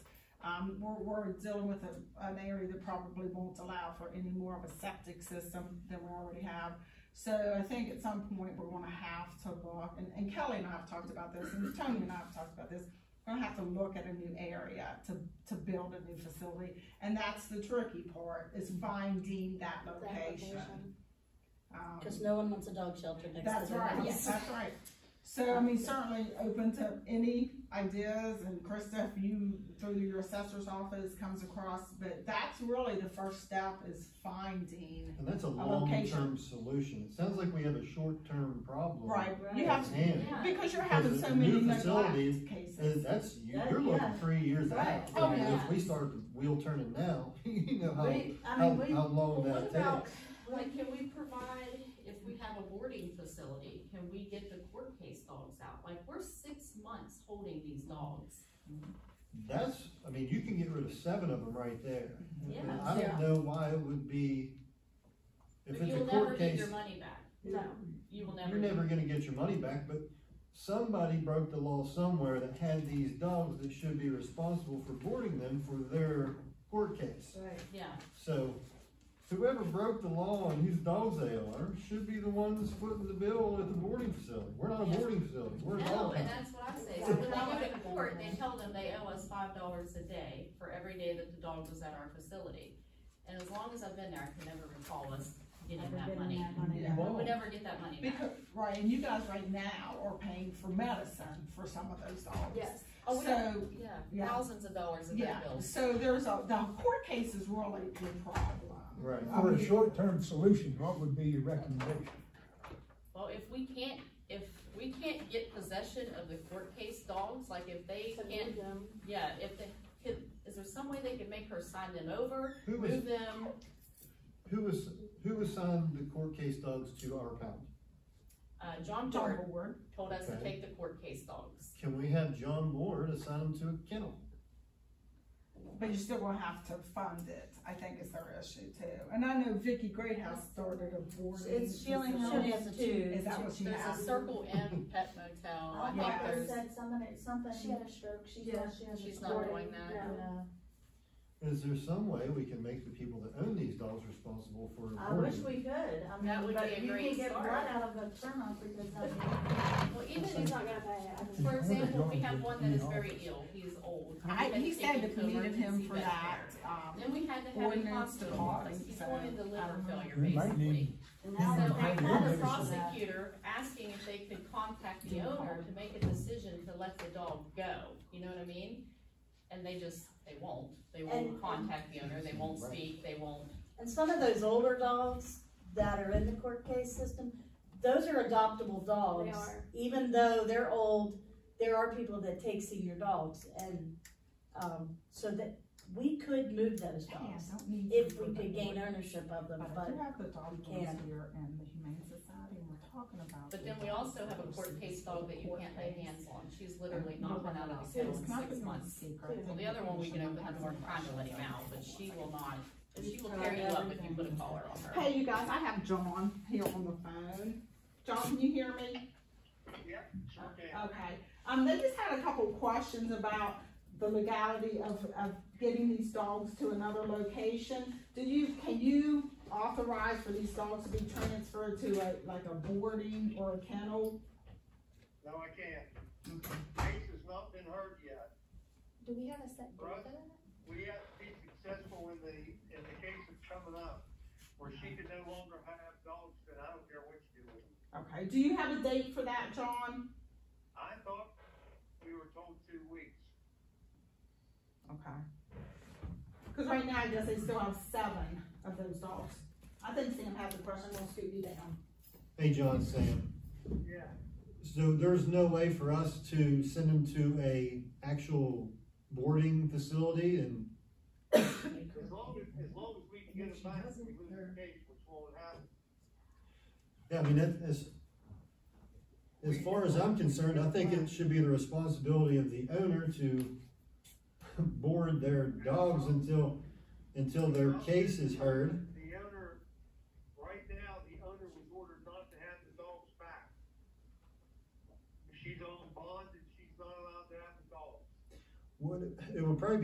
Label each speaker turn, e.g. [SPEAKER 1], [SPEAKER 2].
[SPEAKER 1] Um, we're, we're dealing with a, an area that probably won't allow for any more of a septic system than we already have. So I think at some point, we're gonna have to look, and, and Kelly and I have talked about this, and Tony and I have talked about this. We're gonna have to look at a new area to, to build a new facility, and that's the tricky part, is finding that location. Um,
[SPEAKER 2] Cause no one wants a dog shelter next to their house.
[SPEAKER 1] That's right, yes, that's right. So, I mean, certainly open to any ideas, and Krista, if you, through your assessor's office comes across, but that's really the first step is finding.
[SPEAKER 3] And that's a
[SPEAKER 1] location.
[SPEAKER 3] long-term solution. It sounds like we have a short-term problem.
[SPEAKER 1] Right, you
[SPEAKER 3] at
[SPEAKER 1] have,
[SPEAKER 3] hand.
[SPEAKER 4] Yeah.
[SPEAKER 1] because you're having
[SPEAKER 3] Because
[SPEAKER 1] so
[SPEAKER 3] the
[SPEAKER 1] many
[SPEAKER 3] new
[SPEAKER 1] neglect
[SPEAKER 3] facility And
[SPEAKER 1] cases.
[SPEAKER 3] that's,
[SPEAKER 4] Yeah,
[SPEAKER 3] you're looking
[SPEAKER 4] yeah.
[SPEAKER 3] three years
[SPEAKER 4] Right.
[SPEAKER 3] out.
[SPEAKER 1] Oh,
[SPEAKER 3] I mean,
[SPEAKER 1] yeah.
[SPEAKER 3] If we start the wheel turning now, you know how,
[SPEAKER 4] We, I
[SPEAKER 3] how,
[SPEAKER 4] mean, we,
[SPEAKER 3] how long
[SPEAKER 5] Well, what
[SPEAKER 3] that
[SPEAKER 5] about,
[SPEAKER 3] takes.
[SPEAKER 5] like, can we provide, if we have a boarding facility, can we get the court case dogs out? Like, we're six months holding these dogs.
[SPEAKER 3] That's, I mean, you can get rid of seven of them right there. I mean,
[SPEAKER 5] Yeah.
[SPEAKER 3] I
[SPEAKER 2] Yeah.
[SPEAKER 3] don't know why it would be, if
[SPEAKER 5] But
[SPEAKER 3] it's a
[SPEAKER 5] you'll
[SPEAKER 3] court
[SPEAKER 5] never get
[SPEAKER 3] case,
[SPEAKER 5] your money back.
[SPEAKER 4] no,
[SPEAKER 5] You will
[SPEAKER 3] you're
[SPEAKER 5] never.
[SPEAKER 3] never gonna get your money back, but somebody broke the law somewhere that had these dogs that should be responsible for boarding them for their court case.
[SPEAKER 4] right.
[SPEAKER 5] Yeah,
[SPEAKER 3] So whoever broke the law and whose dogs they are should be the ones footing the bill at the boarding facility. We're not a boarding facility, we're a
[SPEAKER 5] no,
[SPEAKER 3] dog.
[SPEAKER 5] and that's what I say, so when they go to court, they tell them they owe us five dollars a day for every day that the dog was at our facility. And as long as I've been there, I can never recall us getting
[SPEAKER 4] Never
[SPEAKER 5] that
[SPEAKER 4] been in
[SPEAKER 5] money.
[SPEAKER 4] that money.
[SPEAKER 1] Yeah.
[SPEAKER 5] We would never get that money back.
[SPEAKER 1] Because, right, and you guys right now are paying for medicine for some of those dogs.
[SPEAKER 4] Yes.
[SPEAKER 5] Oh, we have,
[SPEAKER 1] So,
[SPEAKER 5] yeah,
[SPEAKER 1] yeah.
[SPEAKER 5] thousands of dollars in
[SPEAKER 1] yeah,
[SPEAKER 5] their bills.
[SPEAKER 1] so there's a, the court case is really the problem.
[SPEAKER 3] Right.
[SPEAKER 6] For a short-term solution, what would be your recommendation?
[SPEAKER 5] Well, if we can't, if we can't get possession of the court case dogs, like if they
[SPEAKER 2] So
[SPEAKER 5] can't,
[SPEAKER 2] we, um,
[SPEAKER 5] yeah, if they, could, is there some way they could make her sign them over,
[SPEAKER 3] Who was,
[SPEAKER 5] move them?
[SPEAKER 3] who was, who assigned the court case dogs to our pound?
[SPEAKER 5] Uh, John
[SPEAKER 1] John
[SPEAKER 5] Dart
[SPEAKER 1] Ward,
[SPEAKER 5] told us to
[SPEAKER 3] Okay.
[SPEAKER 5] take the court case dogs.
[SPEAKER 3] Can we have John Ward assign them to a kennel?
[SPEAKER 1] But you're still gonna have to fund it, I think is their issue too. And I know Vicky Greathouse started a board.
[SPEAKER 4] It's Sheila
[SPEAKER 2] House.
[SPEAKER 4] House
[SPEAKER 1] Is
[SPEAKER 4] too.
[SPEAKER 1] that what she
[SPEAKER 5] There's a
[SPEAKER 1] has? Oh,
[SPEAKER 5] Circle M pet motel, I
[SPEAKER 1] Yeah.
[SPEAKER 5] think there's,
[SPEAKER 7] said something, something, she had a stroke, she
[SPEAKER 4] Yeah.
[SPEAKER 7] thought she had a
[SPEAKER 5] She's
[SPEAKER 7] stroke.
[SPEAKER 5] not doing that.
[SPEAKER 7] Yeah.
[SPEAKER 3] Is there some way we can make the people that own these dogs responsible for
[SPEAKER 4] I wish
[SPEAKER 3] boarding?
[SPEAKER 4] we could, I
[SPEAKER 5] That
[SPEAKER 4] mean,
[SPEAKER 5] would be a
[SPEAKER 4] but you
[SPEAKER 5] great
[SPEAKER 4] can get
[SPEAKER 5] start.
[SPEAKER 4] blood
[SPEAKER 7] Out of a terminal because of
[SPEAKER 5] well, even
[SPEAKER 7] She's
[SPEAKER 5] if,
[SPEAKER 7] not gonna pay it. I just-
[SPEAKER 5] for example, we have one that is very ill, he's old. We've
[SPEAKER 1] I,
[SPEAKER 5] been
[SPEAKER 1] he said
[SPEAKER 5] taking
[SPEAKER 1] that
[SPEAKER 5] to
[SPEAKER 1] we needed him
[SPEAKER 5] emergency
[SPEAKER 1] for
[SPEAKER 5] vet
[SPEAKER 1] that,
[SPEAKER 5] care.
[SPEAKER 1] um,
[SPEAKER 5] Then we had to have him
[SPEAKER 1] ordinance to
[SPEAKER 5] hospitalized, he's
[SPEAKER 1] so,
[SPEAKER 5] going into
[SPEAKER 1] I
[SPEAKER 5] liver
[SPEAKER 1] don't know.
[SPEAKER 5] failure
[SPEAKER 6] We might
[SPEAKER 5] basically.
[SPEAKER 6] need,
[SPEAKER 7] And
[SPEAKER 5] So
[SPEAKER 7] now
[SPEAKER 5] I
[SPEAKER 7] they
[SPEAKER 5] called the
[SPEAKER 7] have a-
[SPEAKER 5] prosecutor asking if they could contact the owner to make a decision to let the dog go, you know what I mean? And they just, they won't, they won't
[SPEAKER 4] And-
[SPEAKER 5] contact the owner, they won't speak, they won't,
[SPEAKER 4] And some of those older dogs that are in the court case system, those are adoptable dogs.
[SPEAKER 7] They are.
[SPEAKER 4] Even though they're old, there are people that take senior dogs and, um, so that we could move those
[SPEAKER 1] hey, I
[SPEAKER 4] dogs
[SPEAKER 1] don't need
[SPEAKER 4] if
[SPEAKER 1] you for
[SPEAKER 4] we
[SPEAKER 1] the
[SPEAKER 4] could gain
[SPEAKER 1] board.
[SPEAKER 4] ownership of them,
[SPEAKER 1] But I
[SPEAKER 4] but
[SPEAKER 1] do have the dog
[SPEAKER 4] we
[SPEAKER 1] owners
[SPEAKER 4] can't.
[SPEAKER 1] here and the Humane Society, and we're talking about.
[SPEAKER 5] but
[SPEAKER 1] the
[SPEAKER 5] then we
[SPEAKER 1] dog
[SPEAKER 5] also have a court
[SPEAKER 1] versus
[SPEAKER 5] case
[SPEAKER 1] the
[SPEAKER 5] dog that you
[SPEAKER 1] court
[SPEAKER 5] can't lay
[SPEAKER 1] case.
[SPEAKER 5] hands on, she's literally not been out of the
[SPEAKER 1] Can
[SPEAKER 5] kennel
[SPEAKER 1] I
[SPEAKER 5] in
[SPEAKER 1] put you
[SPEAKER 5] six
[SPEAKER 1] on
[SPEAKER 5] months.
[SPEAKER 1] speaker?
[SPEAKER 5] Well, the other one, we can have to work trying to let him out, but she will not, she will tear you up if you put a collar on her.
[SPEAKER 1] Hey, you guys, I have John here on the phone. John, can you hear me?
[SPEAKER 8] Yep, sure can.
[SPEAKER 1] Okay, um, they just had a couple of questions about the legality of, of getting these dogs to another location. Do you, can you authorize for these dogs to be transferred to a, like a boarding or a kennel?
[SPEAKER 8] No, I can't. Case has not been heard yet.
[SPEAKER 7] Do we have a set
[SPEAKER 8] Right. We have to be successful in the, in the case that's coming up, where she can no longer have dogs, and I don't care what you do with them.
[SPEAKER 1] Okay, do you have a date for that, John?
[SPEAKER 8] I thought we were told two weeks.
[SPEAKER 1] Okay. Cause right now, I guess they still have seven of those dogs. I think Sam has a question, we'll scoot you down.
[SPEAKER 3] Hey, John, Sam.
[SPEAKER 8] Yeah.
[SPEAKER 3] So there's no way for us to send them to a actual boarding facility and,
[SPEAKER 8] As long as, as long as we can get them back, we lose the case, which won't happen.
[SPEAKER 3] yeah, I mean, that is, as far as I'm concerned, I think it should be the responsibility of the owner to board their dogs until, until their case is heard.
[SPEAKER 8] The owner, right now, the owner was ordered not to have the dogs back. She's on bond and she's not allowed to have the dogs.
[SPEAKER 3] Would, it would probably